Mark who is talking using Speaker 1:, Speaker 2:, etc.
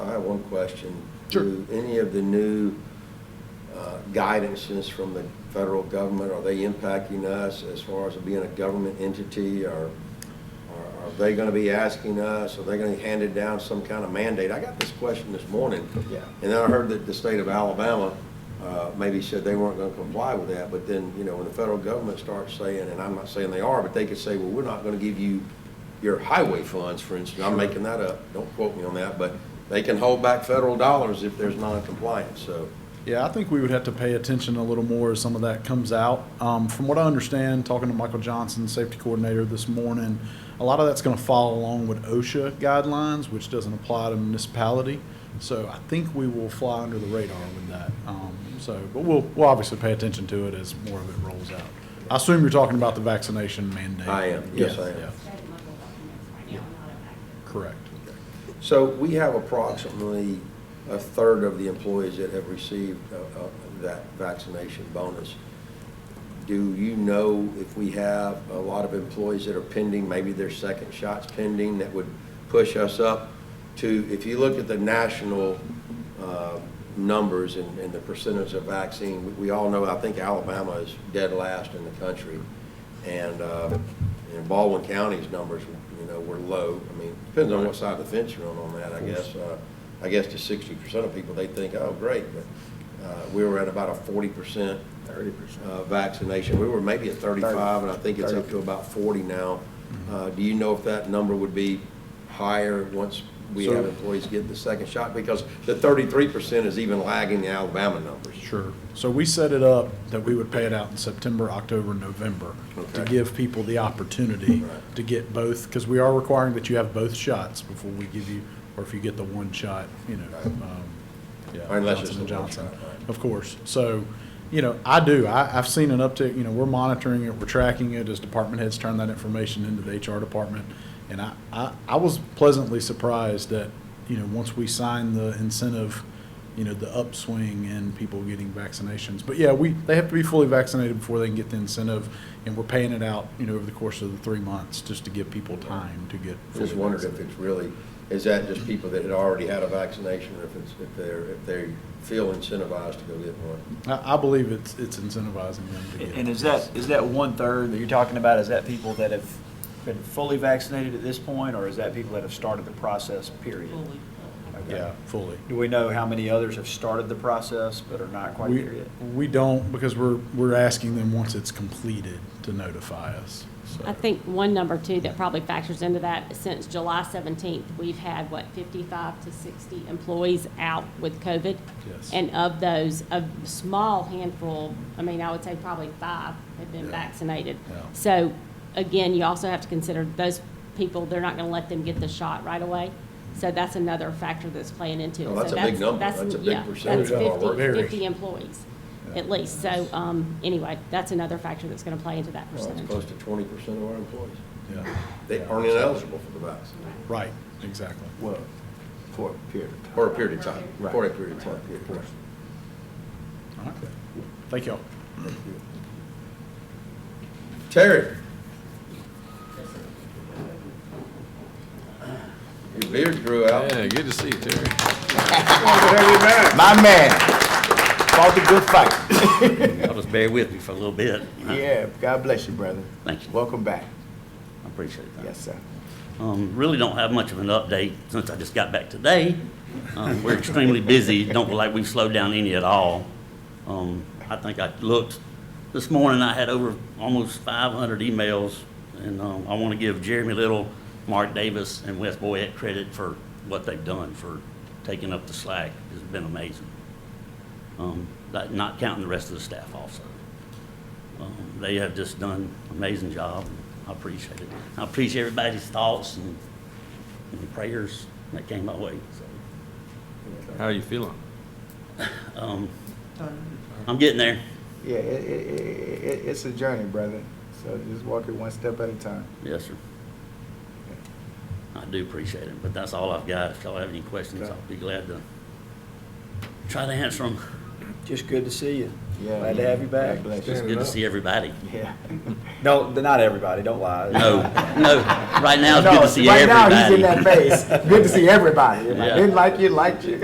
Speaker 1: got one question.
Speaker 2: Sure.
Speaker 1: Do any of the new uh, guidances from the federal government, are they impacting us as far as being a government entity? Or or are they going to be asking us, are they going to hand it down some kind of mandate? I got this question this morning.
Speaker 2: Yeah.
Speaker 1: And then I heard that the state of Alabama uh, maybe said they weren't going to comply with that. But then, you know, when the federal government starts saying, and I'm not saying they are, but they could say, well, we're not going to give you your highway funds, for instance. I'm making that up. Don't quote me on that. But they can hold back federal dollars if there's noncompliance. So
Speaker 2: Yeah, I think we would have to pay attention a little more as some of that comes out. Um, from what I understand, talking to Michael Johnson, safety coordinator this morning, a lot of that's going to follow along with OSHA guidelines, which doesn't apply to municipality. So I think we will fly under the radar with that. Um, so, but we'll, we'll obviously pay attention to it as more of it rolls out. I assume you're talking about the vaccination mandate.
Speaker 1: I am. Yes, I am.
Speaker 2: yeah,
Speaker 3: State and local governments right now are not affected.
Speaker 2: Correct.
Speaker 1: So we have approximately a third of the employees that have received uh, uh, that vaccination bonus. Do you know if we have a lot of employees that are pending, maybe their second shot's pending, that would push us up to, if you look at the national uh, numbers and and the percentage of vaccine, we- we all know, I think Alabama is dead last in the country. And, uh, and Baldwin County's numbers, you know, were low. I mean, depends on what side of the fence you're on on that, I guess. Uh, I guess to sixty percent of people, they think, oh, great, but, uh, we were at about a forty percent
Speaker 4: Thirty percent.
Speaker 1: uh, vaccination. We were maybe at 35, and I think it's up to about 40 now.
Speaker 4: Mm-hmm.
Speaker 1: Uh, Do you know if that number would be higher once we
Speaker 2: So-
Speaker 1: have employees get the second shot? Because the 33% is even lagging the Alabama numbers.
Speaker 2: Sure. So we set it up that we would pay it out in September, October, November to
Speaker 1: Okay.
Speaker 2: give people the opportunity
Speaker 1: Right.
Speaker 2: to get both, because we are requiring that you have both shots before we give you, or if you get the one shot, you know,
Speaker 1: Right.
Speaker 2: um, yeah,
Speaker 1: Or unless it's
Speaker 2: Johnson and
Speaker 1: the one
Speaker 2: Johnson.
Speaker 1: shot, right.
Speaker 2: Of course. So, you know, I do. I, I've seen an uptick, you know, we're monitoring it, we're tracking it as department heads turn that information into the HR department. And I, I, I was pleasantly surprised that, you know, once we signed the incentive, you know, the upswing in people getting vaccinations. But yeah, we, they have to be fully vaccinated before they can get the incentive. And we're paying it out, you know, over the course of the three months just to give people time to get fully
Speaker 1: Just wondered if
Speaker 2: vaccinated.
Speaker 1: it's really, is that just people that had already had a vaccination, or if it's, if they're, if they feel incentivized to go get one?
Speaker 2: I, I believe it's, it's incentivizing them to get.
Speaker 4: And is
Speaker 2: it.
Speaker 4: that, is that one-third that you're talking about, is that people that have been fully vaccinated at this point, or is that people that have started the process, period?
Speaker 3: Fully.
Speaker 4: Okay.
Speaker 2: Yeah, fully.
Speaker 4: Do we know how many others have started the process but are not quite
Speaker 2: We,
Speaker 4: there yet?
Speaker 2: we don't, because we're, we're asking them once it's completed to notify us, so.
Speaker 5: I think one number too that probably factors into that, since July 17th, we've had, what, 55 to 60 employees out with COVID?
Speaker 2: Yes.
Speaker 5: And of those, a small handful, I mean, I would say probably five have been
Speaker 2: Yeah.
Speaker 5: vaccinated.
Speaker 2: Yeah.
Speaker 5: So again, you also have to consider those people, they're not going to let them get the shot right away. So that's another factor that's playing into it.
Speaker 1: Well, that's
Speaker 5: So
Speaker 1: a big number. That's a big
Speaker 5: yeah,
Speaker 1: percentage
Speaker 2: of our
Speaker 5: That's 50
Speaker 2: workforce.
Speaker 5: 50 employees,
Speaker 2: Yeah.
Speaker 5: at least. So um, anyway, that's another factor that's going to play into that
Speaker 1: Well,
Speaker 5: percentage.
Speaker 1: It's close to 20% of our employees.
Speaker 2: Yeah,
Speaker 1: They aren't ineligible for the vaccine,
Speaker 2: right, exactly.
Speaker 4: Well, for a period of
Speaker 1: for a period of time,
Speaker 4: Right.
Speaker 1: for a period of time. yeah, of course.
Speaker 2: All right. Thank y'all.
Speaker 1: Terry. Your beard grew out.
Speaker 6: Yeah, good to see you, Terry.
Speaker 4: My man, fought the good fight.
Speaker 7: Y'all just bear with me for a little bit.
Speaker 4: Yeah, God bless you, brother.
Speaker 7: Thank you.
Speaker 4: Welcome back.
Speaker 7: I appreciate that.
Speaker 4: sir.
Speaker 7: Um, really don't have much of an update since I just got back today. Um, we're extremely busy. Don't feel like we've slowed down any at all. Um, I think I looked, this morning I had over almost 500 emails, and, um, I want to give Jeremy Little, Mark Davis, and Wes Boyett credit for what they've done, for taking up the slack. It's been amazing. Um, that- not counting the rest of the staff also. Um, They have just done an amazing job. I appreciate it. I appreciate everybody's thoughts and and prayers that came my way. So
Speaker 6: How are you feeling?
Speaker 7: Um, I'm getting there.
Speaker 8: Yeah, it, it, it, it- it's a journey, brother. So just walk it one step at a time.
Speaker 7: Yes, sir. I do appreciate it, but that's all I've got. If y'all have any questions, I'll be glad to try to answer them.
Speaker 4: Just good to see you.
Speaker 8: Yeah.
Speaker 4: Glad to have you back.
Speaker 8: God bless you.
Speaker 7: It's good to see everybody.
Speaker 8: Yeah.
Speaker 4: No, not everybody, don't lie.
Speaker 7: No, no, right now it's
Speaker 8: No,
Speaker 7: good to see
Speaker 8: right
Speaker 7: everybody.
Speaker 8: now he's in that phase. Good to see everybody. If I
Speaker 7: Yeah.
Speaker 8: didn't like you, liked you.